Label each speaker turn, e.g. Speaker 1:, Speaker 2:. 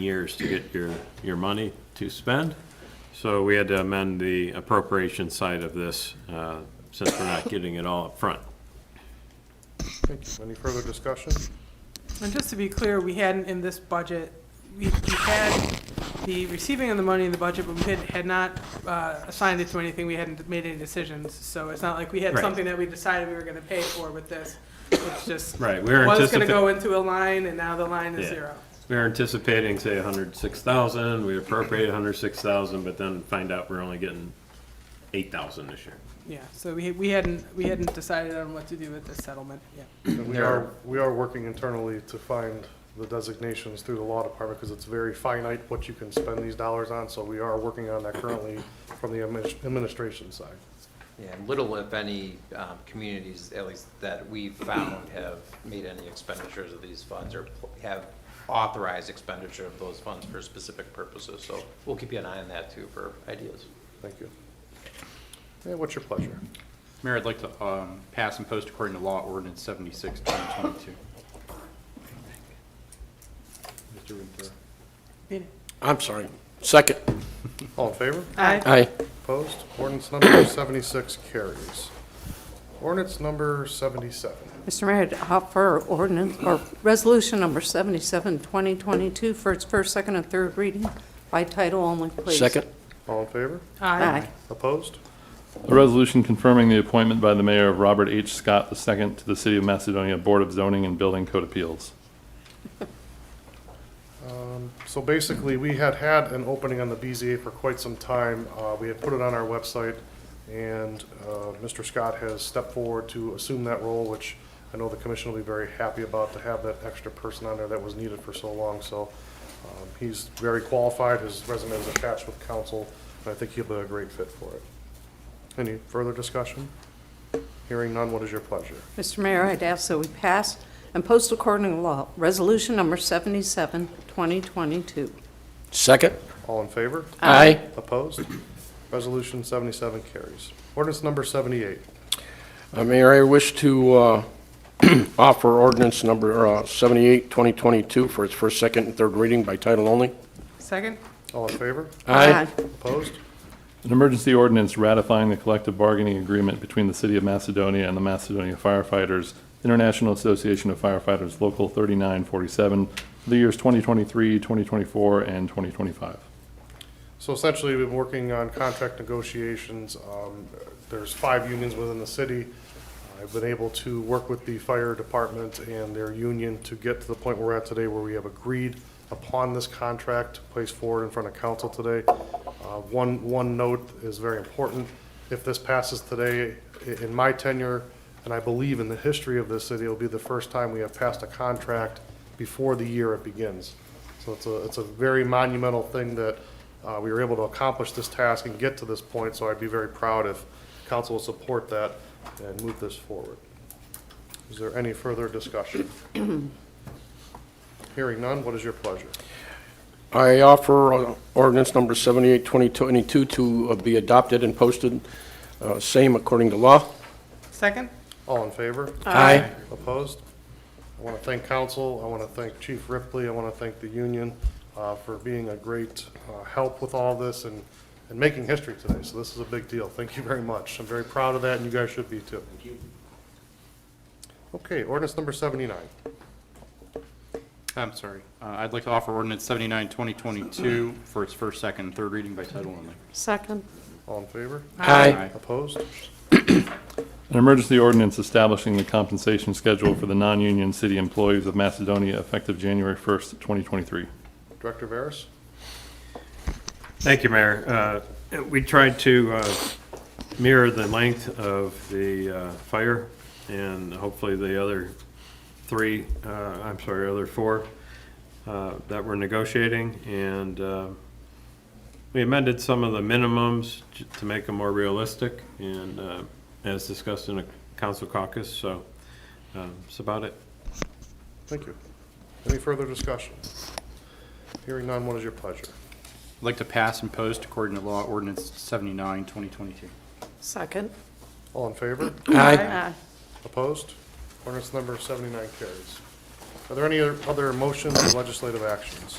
Speaker 1: years to get your, your money to spend. So we had to amend the appropriation side of this, uh, since we're not getting it all up front.
Speaker 2: Thank you. Any further discussion?
Speaker 3: And just to be clear, we hadn't in this budget, we, we had the receiving of the money in the budget, but we had, had not, uh, assigned it to anything, we hadn't made any decisions, so it's not like we had
Speaker 1: Right.
Speaker 3: something that we decided we were gonna pay for with this. It's just.
Speaker 1: Right, we were
Speaker 3: Was gonna
Speaker 1: anticipa-
Speaker 3: go into a line, and now the line is
Speaker 1: Yeah.
Speaker 3: zero.
Speaker 1: We were anticipating, say, hundred six thousand, we appropriated hundred six thousand, but then find out we're only getting eight thousand this year.
Speaker 3: Yeah, so we, we hadn't, we hadn't decided on what to do with this settlement, yeah.
Speaker 2: And we
Speaker 1: There
Speaker 2: are,
Speaker 1: are-
Speaker 2: we are working internally to find the designations through the law department because it's very finite what you can spend these dollars on. So we are working on that currently from the adminis- administration side.
Speaker 4: Yeah, little if any um, communities, at least that we've found, have made any expenditures of these funds or pl- have authorized expenditure of those funds for specific purposes. So we'll keep an eye on that too for ideas.
Speaker 2: Thank you. And what's your pleasure?
Speaker 5: Mayor, I'd like to um, pass and post according to law ordinance 76, 2022. Mr. Winter.
Speaker 6: I'm sorry. Second.
Speaker 2: All in favor?
Speaker 3: Aye.
Speaker 6: Aye.
Speaker 2: Opposed? Ordinance number 76 carries. Ordinance number 77.
Speaker 7: Mr. Mayor, I'd offer ordinance, or resolution number 77, 2022, for its first, second, and third reading by title only, please.
Speaker 6: Second.
Speaker 2: All in favor?
Speaker 7: Aye.
Speaker 2: Opposed?
Speaker 8: A resolution confirming the appointment by the mayor of Robert H. Scott II to the City of Macedonia Board of Zoning and Building Code Appeals.
Speaker 2: So basically, we had had an opening on the BZA for quite some time. Uh, We had put it on our website, and uh, Mr. Scott has stepped forward to assume that role, which I know the commission will be very happy about, to have that extra person on there that was needed for so long. So um, he's very qualified, his resume is attached with council, and I think he'll be a great fit for it. Any further discussion? Hearing none, what is your pleasure?
Speaker 7: Mr. Mayor, I'd ask that we pass and post according to law, resolution number 77, 2022.
Speaker 6: Second.
Speaker 2: All in favor?
Speaker 6: Aye.
Speaker 2: Opposed? Resolution 77 carries. Ordinance number 78.
Speaker 6: Uh, Mayor, I wish to uh, offer ordinance number uh, 78, 2022, for its first, second, and third reading by title only.
Speaker 3: Second?
Speaker 2: All in favor? Opposed?
Speaker 8: An emergency ordinance ratifying the collective bargaining agreement between the City of Macedonia and the Macedonia Firefighters International Association of Firefighters Local 3947 for the years 2023, 2024, and 2025.
Speaker 2: So essentially, we've been working on contract negotiations. Um, There's five unions within the city. I've been able to work with the fire department and their union to get to the point where we're at today where we have agreed upon this contract placed forward in front of council today. Uh, One, one note is very important. If this passes today, i- in my tenure, and I believe in the history of this city, it'll be the first time we have passed a contract before the year it begins. So it's a, it's a very monumental thing that uh, we were able to accomplish this task and get to this point, so I'd be very proud if council will support that and move this forward. Is there any further discussion? Hearing none, what is your pleasure?
Speaker 6: I offer uh, ordinance number 78, 2022, to uh, be adopted and posted, uh, same according to law.
Speaker 3: Second?
Speaker 2: All in favor?
Speaker 6: Aye.
Speaker 2: Opposed? I want to thank council, I want to thank Chief Ripley, I want to thank the union uh, for being a great uh, help with all this and, and making history today, so this is a big deal. Thank you very much. I'm very proud of that, and you guys should be too. Thank you. Okay, ordinance number 79.
Speaker 5: I'm sorry. Uh, I'd like to offer ordinance 79, 2022 for its first, second, and third reading by title only.
Speaker 7: Second.
Speaker 2: All in favor?
Speaker 6: Aye.
Speaker 2: Opposed?
Speaker 8: An emergency ordinance establishing the compensation schedule for the non-union city employees of Macedonia effective January 1st, 2023.
Speaker 2: Director Veras?
Speaker 1: Thank you, Mayor. Uh, We tried to uh, mirror the length of the uh, fire and hopefully the other three, uh, I'm sorry, other four uh, that we're negotiating. And uh, we amended some of the minimums j- to make them more realistic and uh, as discussed in a council caucus, so um, that's about it.
Speaker 2: Thank you. Any further discussion? Hearing none, what is your pleasure?
Speaker 5: I'd like to pass and post according to law ordinance 79, 2022.
Speaker 7: Second.
Speaker 2: All in favor?
Speaker 6: Aye.
Speaker 2: Opposed? Ordinance number 79 carries. Are there any other other motions or legislative actions?